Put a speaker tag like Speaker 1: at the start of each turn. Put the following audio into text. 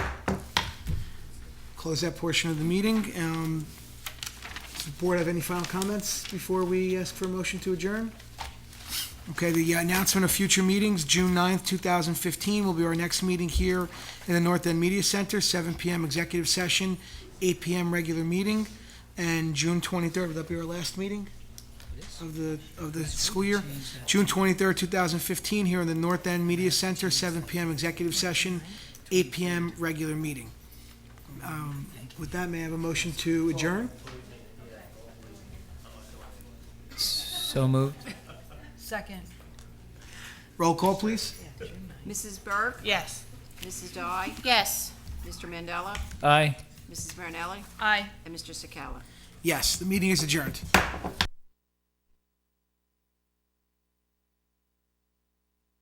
Speaker 1: close that portion of the meeting. Um, Does the board have any final comments before we ask for a motion to adjourn? Okay, the announcement of future meetings, June 9th, 2015, will be our next meeting here in the North End Media Center, 7 PM executive session, 8 PM regular meeting, and June 23rd, will that be our last meeting of the, of the school year? June 23rd, 2015, here in the North End Media Center, 7 PM executive session, 8 PM regular meeting. Um, With that, may I have a motion to adjourn?
Speaker 2: So moved.
Speaker 3: Second.
Speaker 1: Roll call, please.
Speaker 4: Mrs. Burke?
Speaker 3: Yes.
Speaker 4: Mrs. Dye?
Speaker 3: Yes.
Speaker 4: Mr. Mandela?
Speaker 2: Aye.
Speaker 4: Mrs. Marinelli?
Speaker 3: Aye.
Speaker 4: And Mr. Sakala?
Speaker 1: Yes, the meeting is adjourned.